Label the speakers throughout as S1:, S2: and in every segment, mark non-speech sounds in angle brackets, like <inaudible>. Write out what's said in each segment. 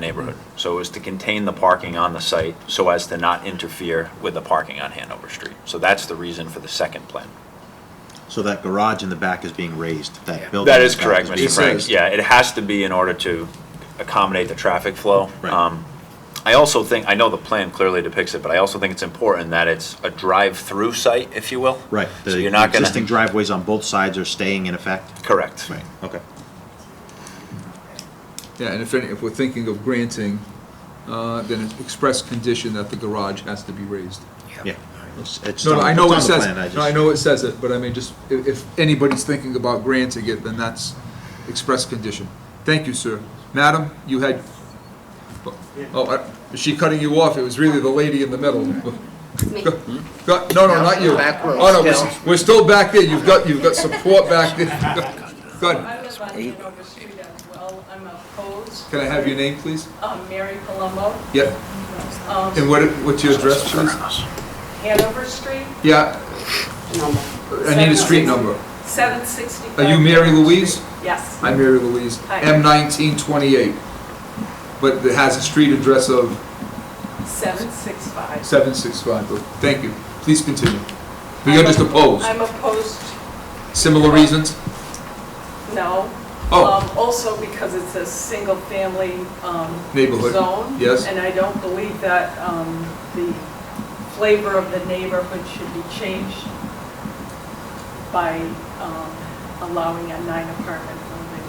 S1: neighborhood, so as to contain the parking on the site so as to not interfere with the parking on Hanover Street. So that's the reason for the second plan.
S2: So that garage in the back is being raised,
S3: Yeah.
S2: that building.
S1: That is
S2: in the back
S1: correct,
S2: being
S1: Mr. Frank.
S2: raised.
S1: Yeah, it has to be in order to accommodate the traffic flow.
S2: Right.
S1: Um, I also think, I know the plan clearly depicts it, but I also think it's important that it's a drive-through site, if you will.
S2: Right,
S1: So
S2: the
S1: you're not gonna.
S2: existing driveways on both sides are staying in effect?
S1: Correct.
S2: Right, okay.
S4: Yeah, and if, any- if we're thinking of granting, uh, then an express condition that the garage has to be raised.
S2: Yeah. It's- it's
S4: No, no,
S2: on-
S4: I know it
S2: it's on the
S4: says,
S2: plan,
S4: no, I
S2: just-
S4: know it says it, but I mean, just, if, if anybody's thinking about granting it, then that's express condition. Thank you, sir. Madam, you had, oh, I- is she cutting you off? It was really the lady in the middle.
S5: me.
S4: <laughs> Go- go- No, no, not you.
S3: Back row
S4: Oh, no, we're
S3: still.
S4: s- We're still back there. You've got, you've got support back there. <laughs> Go ahead.
S6: I live on Hanover Street as well. I'm opposed.
S4: Can I have your name, please?
S6: Um, Mary Palumbo.
S4: Yep.
S6: Um,
S4: And what, what's your address, please?
S6: Hanover Street,
S4: Yeah,
S5: number.
S4: I need a street number.
S6: 765.
S4: Are you Mary
S6: Hanover
S4: Louise?
S6: Street. Yes.
S4: I'm Mary Louise,
S6: Hi.
S4: M nineteen twenty-eight. But it has a street address of
S6: 765.
S4: seven six five. Thank you. Please continue. But you're just
S6: I'm-
S4: opposed.
S6: I'm opposed,
S4: Similar reasons?
S6: no.
S4: Oh.
S6: Um, Also because it's a single-family um,
S4: Neighborhood.
S6: zone.
S4: Yes.
S6: And I don't believe that um, the flavor of the neighborhood should be changed by um, allowing a nine apartment building.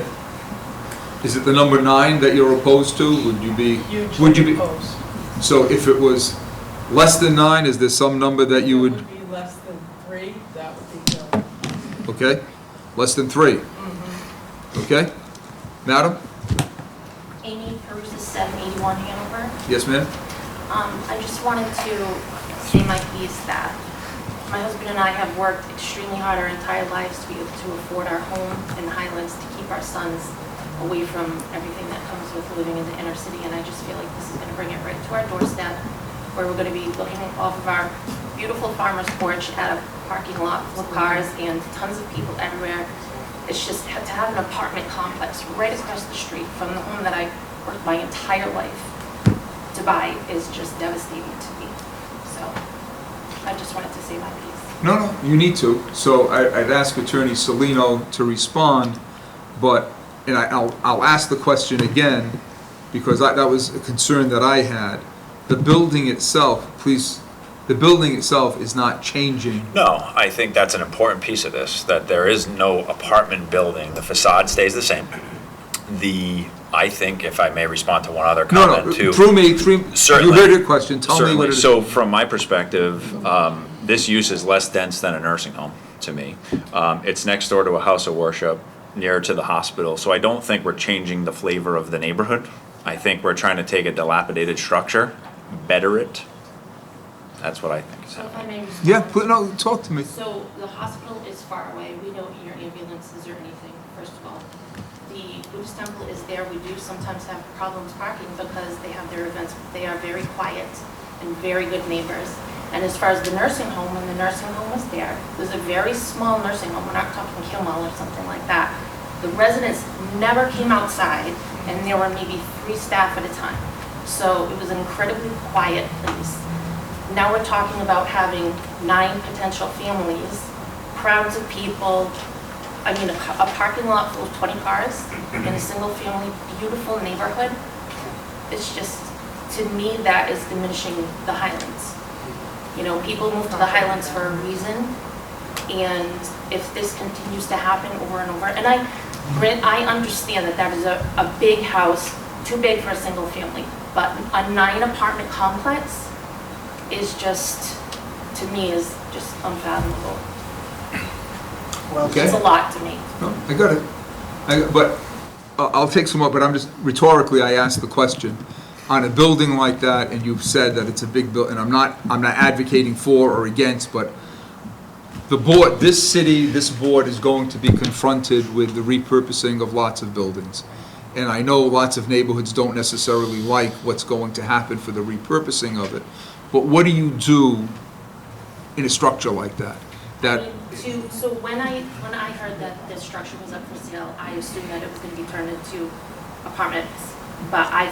S4: Okay. Is it the number nine that you're opposed to? Would you be? Would you
S6: hugely
S4: be?
S6: opposed.
S4: So if it was less than nine, is there some number that you
S6: If it
S4: would,
S6: be less than three, that would be good.
S4: okay? Less than three? Okay? Madam?
S7: Amy Peruzza, 781 Hanover.
S4: Yes, ma'am?
S7: Um, I just wanted to say my piece that my husband and I have worked extremely hard our entire lives to be able to afford our home in the Highlands to keep our sons away from everything that comes with living in the inner city, and I just feel like this is going to bring it right to our doorstep, where we're going to be looking off of our beautiful farmer's porch at a parking lot full of cars and tons of people everywhere. It's just ha- to have an apartment complex right across the street from the home that I worked my entire life to buy is just devastating to me. So I just wanted to say my piece.
S4: No, no, you need to. So I, I'd ask Attorney Salino to respond, but, and I, I'll, I'll ask the question again, because I, that was a concern that I had. The building itself, please, the building itself is not changing.
S1: No, I think that's an important piece of this, that there is no apartment building. The facade stays the same. The, I think, if I may respond to one other
S4: No,
S1: comment, too.
S4: no, through me, through, you
S1: Certainly.
S4: heard your question, tell me
S1: Certainly.
S4: what it is.
S1: So from my perspective, um, this use is less dense than a nursing home to me. Um, It's next door to a house of worship, nearer to the hospital, so I don't think we're changing the flavor of the neighborhood. I think we're trying to take a dilapidated structure, better it. That's what I think is
S7: So if
S1: happening.
S7: I may respond.
S4: Yeah, pl- no, talk to me.
S7: So the hospital is far away. We don't hear ambulances or anything, first of all. The Buddhist temple is there. We do sometimes have problems parking because they have their events. They are very quiet and very good neighbors. And as far as the nursing home, when the nursing home was there, it was a very small nursing home. We're not talking Kilmall or something like that. The residents never came outside and there were maybe three staff at a time. So it was an incredibly quiet place. Now we're talking about having nine potential families, crowds of people, I mean, a ca- a parking lot full of 20 cars in a single-family, beautiful neighborhood. It's just, to me, that is diminishing the Highlands. You know, people move to the Highlands for a reason, and if this continues to happen over and over, and I, grant- I understand that that is a, a big house, too big for a single family, but a nine apartment complex is just, to me, is just unfathomable.
S4: Okay.
S7: It's a lot to me.
S4: No, I got it. I, but, I- I'll take some more, but I'm just, rhetorically, I asked the question. On a building like that, and you've said that it's a big buil, and I'm not, I'm not advocating for or against, but the board, this city, this board is going to be confronted with the repurposing of lots of buildings. And I know lots of neighborhoods don't necessarily like what's going to happen for the repurposing of it. But what do you do in a structure like that?
S7: I
S4: That,
S7: mean, To, so when I, when I heard that this structure was up for sale, I assumed that it was gonna be turned into apartments. But I